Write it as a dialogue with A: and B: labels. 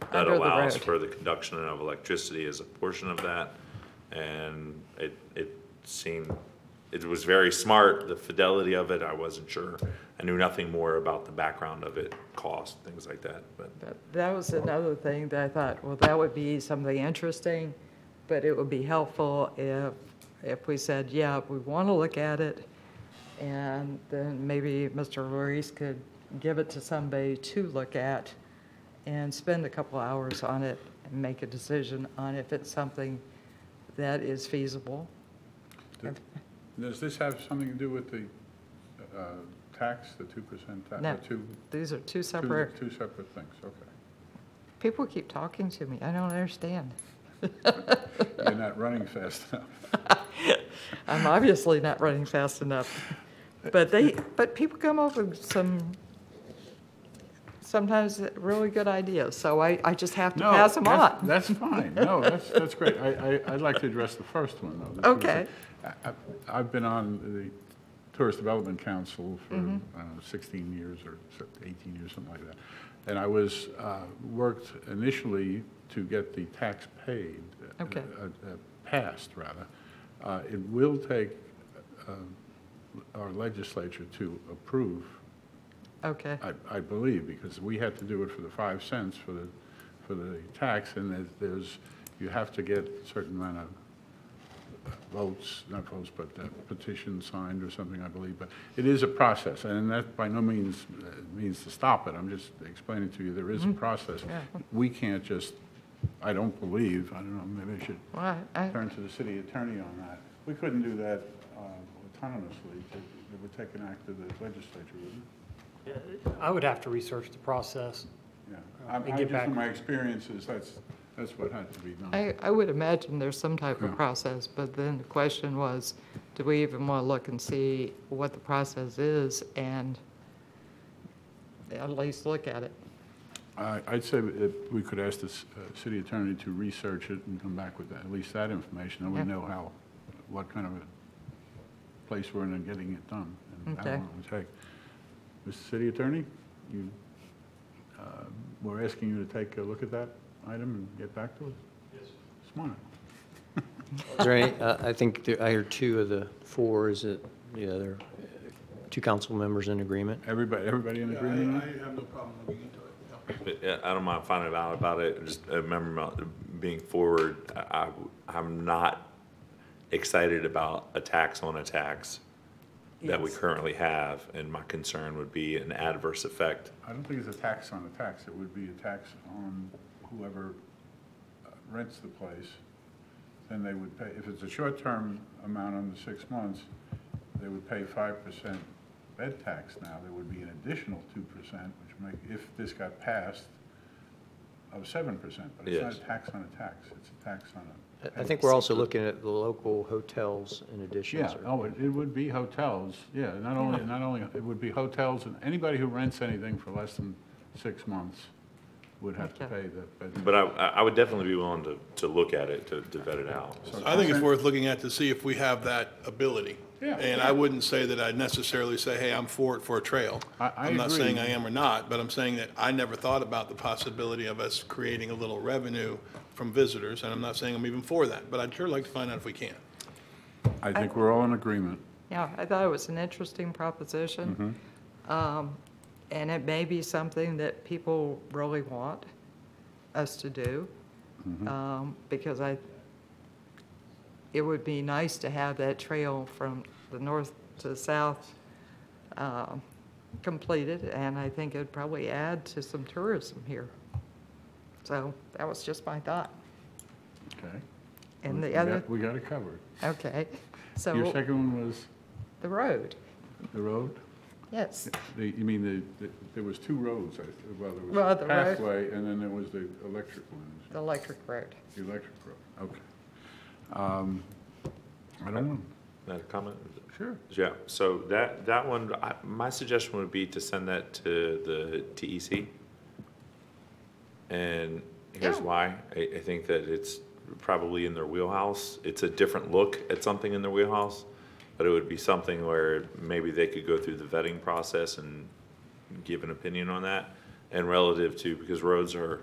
A: that
B: under the
A: allows
B: road.
A: for the conduction of electricity as a portion of that. And it, it seemed, it was very smart, the fidelity of it, I wasn't sure. I knew nothing more about the background of it, cost, things like that, but
B: But That was another thing that I thought, well, that would be something interesting, but it would be helpful if, if we said, yeah, we want to look at it. And then maybe Mr. Ruiz could give it to somebody to look at and spend a couple hours on it and make a decision on if it's something that is feasible.
C: Does this have something to do with the uh, tax, the 2% tax?
B: No.
C: the Two,
B: These are two
C: two,
B: separate,
C: two separate things, okay.
B: people keep talking to me, I don't understand.
C: You're not running fast enough.
B: I'm obviously not running fast enough. But they, but people come up with some, sometimes really good ideas, so I, I just have to
C: No,
B: pass them
C: that's-
B: on.
C: That's fine, no, that's, that's great. I, I, I'd like to address the first one, though. This was-
B: Okay.
C: I- I- I've been on the Tourist Development Council for, I
B: Mm-hmm.
C: don't know, 16 years or so- 18 years, something like that. And I was, uh, worked initially to get the tax paid. uh,
B: Okay.
C: uh, uh, Passed, rather. Uh, It will take uh, our legislature to approve
B: Okay,
C: I, I believe, because we had to do it for the five cents for the, for the tax, and there's- there's, you have to get a certain amount of votes, not votes, but uh, petition signed or something, I believe, but it is a process, and that by no means, uh, means to stop it, I'm just explaining to you, there is a process.
B: Yeah.
C: We can't just, I don't believe, I don't know, maybe I should
B: well, I, I-
C: turn to the city attorney on that. We couldn't do that uh, autonomously, it it would take an act of the legislature, wouldn't it?
D: I would have to research the process.
C: Yeah, I'm,
D: and
C: I'm
D: get
C: just
D: back.
C: from my experiences, that's, that's what had to be done.
B: I, I would imagine there's some type of
C: Yeah.
B: process, but then the question was, do we even want to look and see what the process is and at least look at it?
C: I, I'd say that we could ask the s- uh, city attorney to research it and come back with at least that information, and we
B: Yeah.
C: know how, what kind of a place we're in and getting it done, and how
B: Okay.
C: long it would take. Mr. City Attorney, you, uh, we're asking you to take a look at that item and get back to us? Yes. Smart.
E: Is there any, uh, I think there- I hear two of the four, is it, yeah, there are two council members in agreement?
C: Everybody, everybody in
F: Yeah, I,
C: agreement on
F: I
C: it?
F: have no problem looking into it, yeah.
A: But, uh, I don't mind finding out about it, just I remember about being forward. I, I- I'm not excited about a tax on a tax that we currently have, and my concern would be an adverse effect.
C: I don't think it's a tax on a tax, it would be a tax on whoever uh, rents the place, then they would pay, if it's a short-term amount under six months, they would pay five percent bed tax now, there would be an additional two percent, which make, if this got passed, of seven percent, but it's not
A: Yes.
C: a tax on a tax, it's a tax on a.
E: I- I think we're also looking at the local hotels in addition.
C: Yeah,
E: sir.
C: oh, it, it would be hotels, yeah, not only, not only, it would be hotels, and anybody who rents anything for less than six months would have to
B: Okay.
C: pay the, but.
A: But I, I I would definitely be willing to, to look at it, to, to vet it out.
F: I think it's worth looking at to see if we have that ability.
C: Yeah.
F: And I wouldn't say that I'd necessarily say, hey, I'm for it for a trail.
C: I- I
F: I'm not
C: agree.
F: saying I am or not, but I'm saying that I never thought about the possibility of us creating a little revenue from visitors, and I'm not saying I'm even for that, but I'd sure like to find out if we can.
C: I think we're all in agreement.
B: Yeah, I thought it was an interesting proposition. Um, And it may be something that people really want us to do, um, because I, it would be nice to have that trail from the north to the south um, completed, and I think it'd probably add to some tourism here. So that was just my thought.
C: Okay.
B: And
C: We
B: the
C: got-
B: other,
C: We got it covered.
B: okay,
C: Your
B: so
C: second one was
B: the road,
C: the road?
B: yes.
C: The, you mean the, the- there was two roads, I, th- well, there
B: Well,
C: was
B: the
C: the
B: road-
C: pathway, and then there was the electric one,
B: the electric road.
C: the electric road, okay. Um, I don't want,
A: Another comment?
C: sure.
A: Yeah, so that, that one, I, my suggestion would be to send that to the TEC. And here's
B: Yeah.
A: why. I, I think that it's probably in their wheelhouse. It's a different look at something in their wheelhouse, but it would be something where maybe they could go through the vetting process and give an opinion on that. And relative to, because roads are